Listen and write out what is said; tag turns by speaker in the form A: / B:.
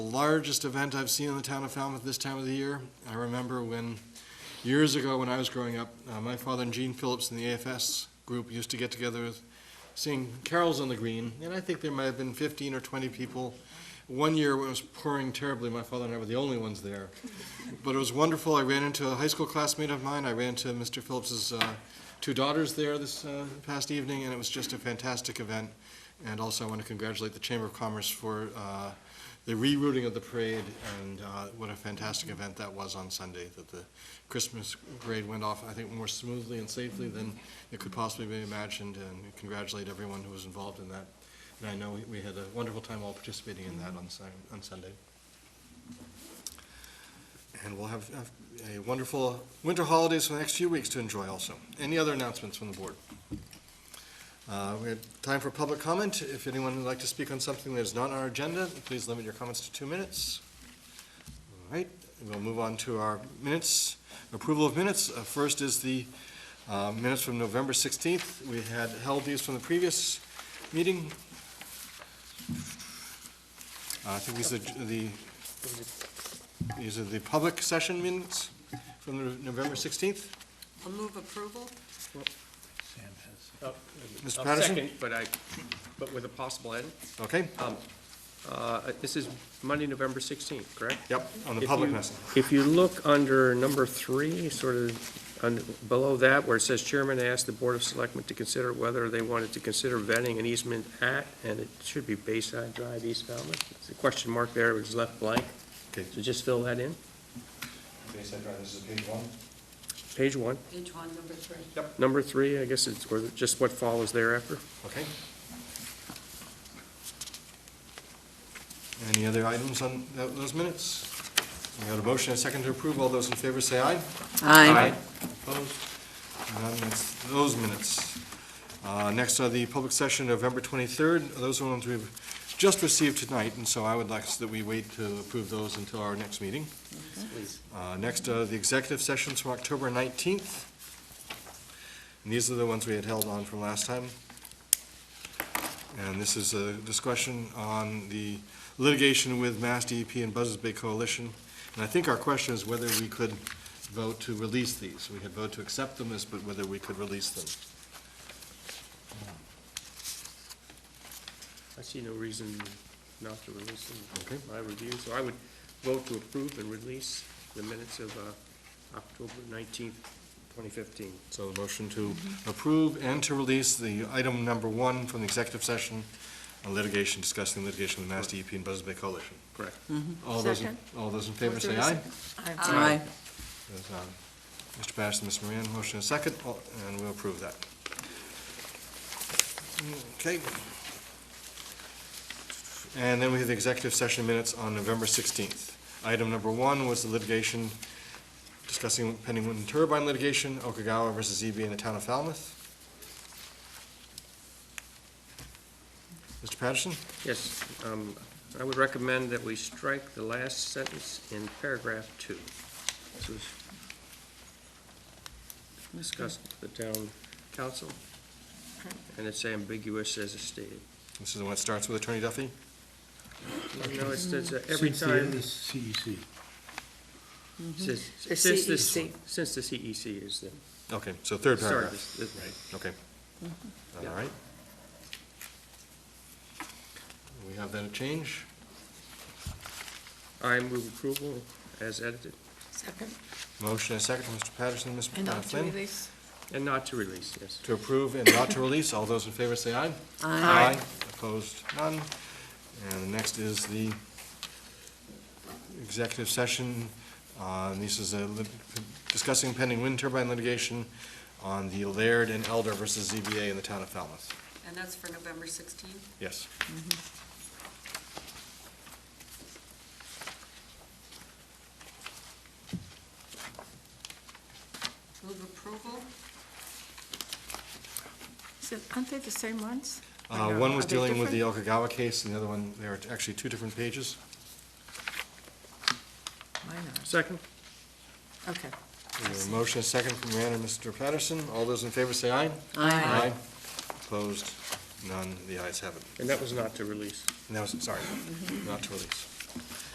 A: The largest event I've seen in the town of Falmouth this time of the year. I remember when, years ago, when I was growing up, uh, my father and Gene Phillips in the AFS group used to get together, sing carols on the green, and I think there might have been 15 or 20 people. One year when it was pouring terribly, my father and I were the only ones there. But it was wonderful. I ran into a high school classmate of mine. I ran into Mr. Phillips's uh, two daughters there this uh, past evening, and it was just a fantastic event. And also, I want to congratulate the Chamber of Commerce for uh, the rerouting of the parade, and uh, what a fantastic event that was on Sunday, that the Christmas parade went off, I think, more smoothly and safely than it could possibly be imagined, and congratulate everyone who was involved in that. And I know we- we had a wonderful time all participating in that on Sun- on Sunday. And we'll have have a wonderful winter holidays for the next few weeks to enjoy also. Any other announcements from the board? Uh, We have time for public comment. If anyone would like to speak on something that is not on our agenda, please limit your comments to two minutes. All right, we'll move on to our minutes, approval of minutes. Uh, First is the uh, minutes from November 16th. We had held these from the previous meeting. Uh, I think these are the, these are the public session minutes from the November 16th.
B: I'll move approval.
C: Up-
A: Mr.
C: up
A: Patterson?
C: second, But I, but with a possible edit.
A: Okay?
C: Uh, This is Monday, November 16th, correct?
A: Yep, on the
C: If
A: public
C: you-
A: message.
C: If you look under number three, sort of un- below that, where it says Chairman asked the Board of Selectmen to consider whether they wanted to consider vetting an easement at, and it should be Bayside Drive, East Falmouth. It's a question mark there, it was left blank.
A: Okay.
C: So just fill that in,
A: this is page one.
C: page one.
B: Page one, number three.
C: Number three, I guess it's, or just what follows thereafter.
A: Okay. Any other items on tho- those minutes? We got a motion and a second to approve. All those in favor say aye. Opposed? None, that's those minutes. Uh, Next are the public session, November 23rd. Those are ones we've just received tonight, and so I would like that we wait to approve those until our next meeting. Uh, Next are the executive sessions from October 19th. And these are the ones we had held on from last time. And this is a discussion on the litigation with Mass DEP and Buzzards Bay Coalition. And I think our question is whether we could vote to release these. We had voted to accept them as, but whether we could release them.
C: I see no reason not to release them,
A: Okay.
C: my review, so I would vote to approve and release the minutes of uh, October nineteenth, twenty fifteen.
A: So the motion to approve and to release the item number one from the executive session on litigation, discussing litigation with Mass DEP and Buzzards Bay Coalition.
C: Correct.
A: All those, in-
D: Second.
A: all those in favor say aye.
B: Aye.
A: There's, um, Mr. Patterson, Ms. Moran, motion is second, all- and we'll approve that. Okay. And then we have the executive session minutes on November 16th. Item number one was the litigation, discussing pending wind turbine litigation, Okagawa versus ZB in the town of Falmouth. Mr. Patterson?
C: Yes, um, I would recommend that we strike the last sentence in paragraph two. This was discussed with the town council, and it's ambiguous as it's stated.
A: This is the one that starts with Attorney Duffy?
C: No, it says uh, every time.
E: CEC.
C: Since,
D: The
C: since this,
D: CEC.
C: since the CEC is the,
A: Okay, so third
C: sorry,
A: paragraph.
C: this- this- right.
A: Okay. All
C: Yeah.
A: right. We have that a change.
C: I move approval as edited,
D: Second,
A: Motion and a second from Mr. Patterson, Ms.
D: and not to
A: Flynn.
D: release.
C: and not to release, yes.
A: To approve and not to release. All those in favor say aye.
C: Aye.
A: Opposed, none. And the next is the executive session. Uh, This is a lit- discussing pending wind turbine litigation on the Laird and Elder versus ZBA in the town of Falmouth.
B: And that's for November 16th?
A: Yes.
B: Move approval?
D: So Aren't they the same ones?
A: Uh,
D: Or no?
A: One was
D: Are they
A: dealing with the Okagawa case, and the other one, there are actually two different pages.
D: different? Why not?
C: Second?
D: Okay.
A: We have a Motion is second from Rand and Mr. Patterson. All those in favor say aye. Opposed? None. The ayes have it.
C: And that was not to release.
A: And that was, sorry, not to release.